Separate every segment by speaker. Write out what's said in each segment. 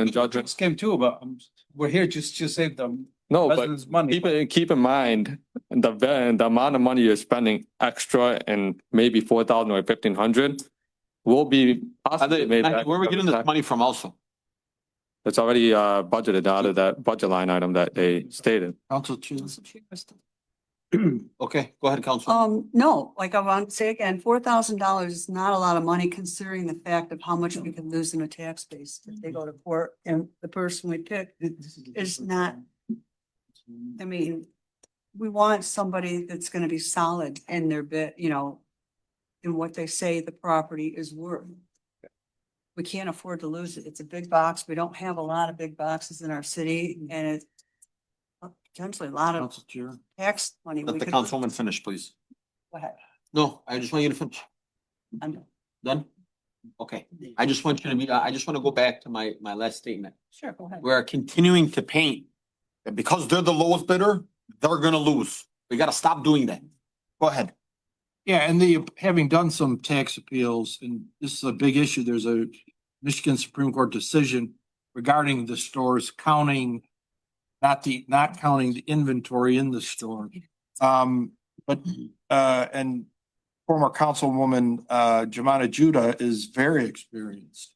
Speaker 1: and judgment.
Speaker 2: Scam too, but um, we're here just to save the
Speaker 1: No, but
Speaker 2: residents' money.
Speaker 1: keep in, keep in mind, the, va- the amount of money you're spending extra and maybe four thousand or fifteen hundred will be possibly made.
Speaker 3: Matt,
Speaker 1: back
Speaker 3: Where are we
Speaker 1: from
Speaker 3: getting
Speaker 1: the
Speaker 3: this
Speaker 1: tax.
Speaker 3: money from also?
Speaker 1: It's already, uh, budgeted out of that budget line item that they stated.
Speaker 3: Council Chairs. Okay, go ahead, Council.
Speaker 4: Um, no, like I want to say again, four thousand dollars is not a lot of money considering the fact of how much we could lose in a tax base if they go to court and the person we pick. It's not- I mean, we want somebody that's gonna be solid in their bit, you know, in what they say the property is worth. We can't afford to lose it. It's a big box. We don't have a lot of big boxes in our city and it's potentially a lot of
Speaker 3: Council Chair.
Speaker 4: tax money. we
Speaker 3: Let the
Speaker 4: could-
Speaker 3: councilwoman finish, please.
Speaker 4: Go ahead.
Speaker 3: No, I just want you to finish.
Speaker 4: I'm-
Speaker 3: Done? Okay, I just want you to be, uh, I I just want to go back to my, my last statement.
Speaker 4: Sure, go ahead.
Speaker 3: We're continuing to paint. And because they're the lowest bidder, they're gonna lose. We gotta stop doing that. Go ahead.
Speaker 5: Yeah, and the, having done some tax appeals, and this is a big issue, there's a Michigan Supreme Court decision regarding the stores counting, not the, not counting the inventory in the store. Um, but, uh, and former councilwoman, uh, Jemana Judah is very experienced.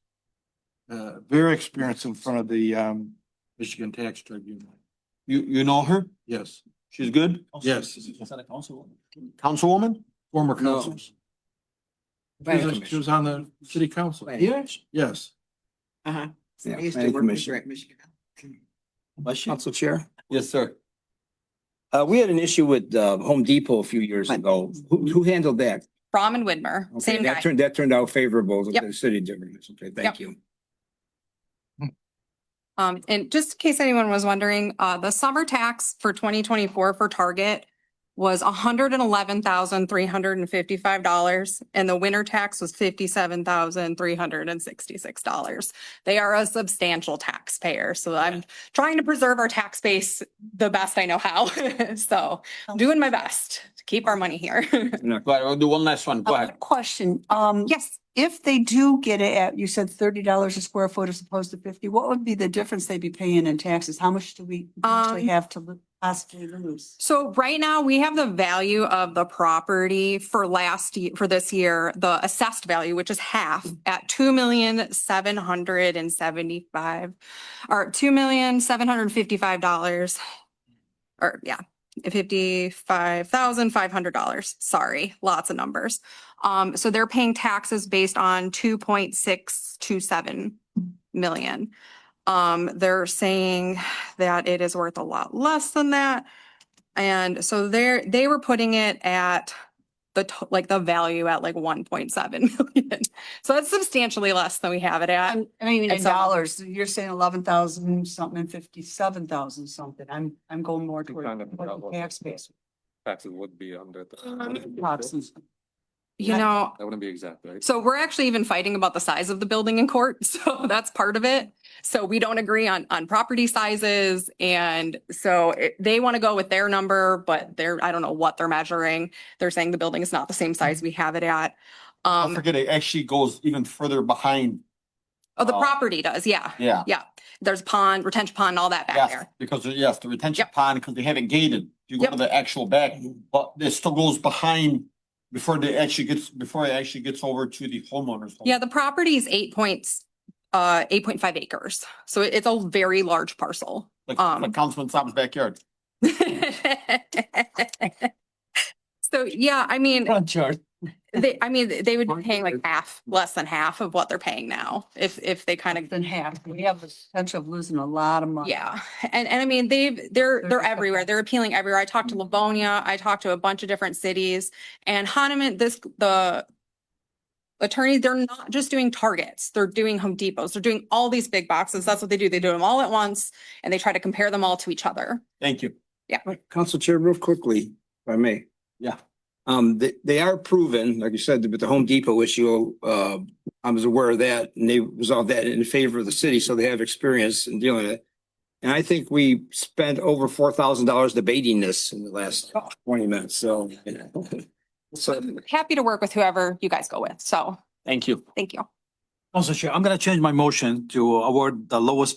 Speaker 5: Uh, very experienced in front of the, um, Michigan Tax Tribunal.
Speaker 3: You, you know her?
Speaker 5: Yes,
Speaker 3: She's good?
Speaker 5: Yes.
Speaker 2: Is that a council?
Speaker 3: Councilwoman?
Speaker 5: former council. She was- She was on the city council.
Speaker 6: Yes.
Speaker 5: Yes.
Speaker 6: Uh-huh.
Speaker 2: Yeah,
Speaker 6: I used to
Speaker 2: planning
Speaker 6: work with
Speaker 2: commission.
Speaker 6: her at Michigan.
Speaker 7: Council Chair,
Speaker 3: Yes, sir.
Speaker 7: uh, we had an issue with, uh, Home Depot a few years ago. Who, who handled that?
Speaker 8: Brom and Widmer,
Speaker 7: Okay,
Speaker 8: same
Speaker 7: that
Speaker 8: guy.
Speaker 7: turned- That turned out favorable to
Speaker 8: Yep.
Speaker 7: the city difference. Okay, thank you.
Speaker 8: Um, and just in case anyone was wondering, uh, the summer tax for twenty twenty-four for Target was hundred and eleven thousand, three hundred and fifty-five dollars, and the winter tax was fifty-seven thousand, three hundred and sixty-six dollars. They are a substantial taxpayer, so I'm trying to preserve our tax base the best I know how. So doing my best to keep our money here.
Speaker 3: Go ahead, we'll do one last one. Go
Speaker 4: Uh,
Speaker 3: ahead.
Speaker 4: Question, um.
Speaker 8: Yes,
Speaker 4: If they do get it at, you said thirty dollars a square foot as opposed to fifty, what would be the difference they'd be paying in taxes? How much do we actually
Speaker 8: Um,
Speaker 4: have to lo- possibly lose?
Speaker 8: So right now, we have the value of the property for last, ye- for this year, the assessed value, which is half at two million seven hundred and seventy-five, or two million seven hundred and fifty-five dollars. Or, yeah, fifty-five thousand five hundred dollars. Sorry, lots of numbers. Um, so they're paying taxes based on two point six two seven million. Um, they're saying that it is worth a lot less than that. And so they're, they were putting it at the, to- like the value at like one point seven million. So that's substantially less than we have it at.
Speaker 4: I'm- I mean, in
Speaker 8: it's all-
Speaker 4: dollars, you're saying eleven thousand something and fifty-seven thousand something. I'm, I'm going more toward
Speaker 1: Kind of
Speaker 4: what the
Speaker 1: double.
Speaker 4: tax base.
Speaker 1: Taxes would be under. the-
Speaker 8: Um,
Speaker 4: Taxes.
Speaker 8: You know,
Speaker 1: That wouldn't be exact, right?
Speaker 8: so we're actually even fighting about the size of the building in court. So that's part of it. So we don't agree on, on property sizes. And so it- they want to go with their number, but they're, I don't know what they're measuring. They're saying the building is not the same size we have it at.
Speaker 3: Don't
Speaker 8: Um,
Speaker 3: forget, it actually goes even further behind.
Speaker 8: oh, the
Speaker 3: uh,
Speaker 8: property does. Yeah.
Speaker 3: Yeah.
Speaker 8: There's pond, retention pond, all that back
Speaker 3: Yes,
Speaker 8: there.
Speaker 3: because, yes, the retention
Speaker 8: Yep.
Speaker 3: pond, because they have it gated, you go to
Speaker 8: Yep.
Speaker 3: the actual back, but it still goes behind before they actually gets, before it actually gets over to the homeowners. home.
Speaker 8: Yeah, the property is eight points, uh, eight point five acres. So it- it's a very large parcel.
Speaker 3: Like,
Speaker 8: um,
Speaker 3: like Councilman Saab's backyard.
Speaker 8: So, yeah, I mean,
Speaker 2: Front yard.
Speaker 8: they, I mean, they would be
Speaker 2: Front
Speaker 8: paying like half, less than half of what they're paying now, if, if they kind of
Speaker 4: Than half. We have the potential of losing a lot of money.
Speaker 8: Yeah, and, and I mean, they've, they're,
Speaker 4: They're
Speaker 8: they're
Speaker 4: just so
Speaker 8: everywhere. They're appealing everywhere. I talked to Livonia, I talked to a bunch of different cities and Hahnemann, this, the attorneys, they're not just doing Targets, they're doing Home Depots, they're doing all these big boxes. That's what they do. They do them all at once and they try to compare them all to each other.
Speaker 3: Thank you.
Speaker 7: Council Chair, real quickly, if I may.
Speaker 3: Yeah.
Speaker 7: Um, they, they are proven, like you said, with the Home Depot issue, uh, I was aware of that and they resolved that in favor of the city, so they have experience in dealing with it. And I think we spent over four thousand dollars debating this in the last twenty minutes, so. you know. So
Speaker 8: Happy to work with whoever you guys go with. So,
Speaker 3: Thank you.
Speaker 8: thank you.
Speaker 2: Council Chair, I'm gonna change my motion to award the lowest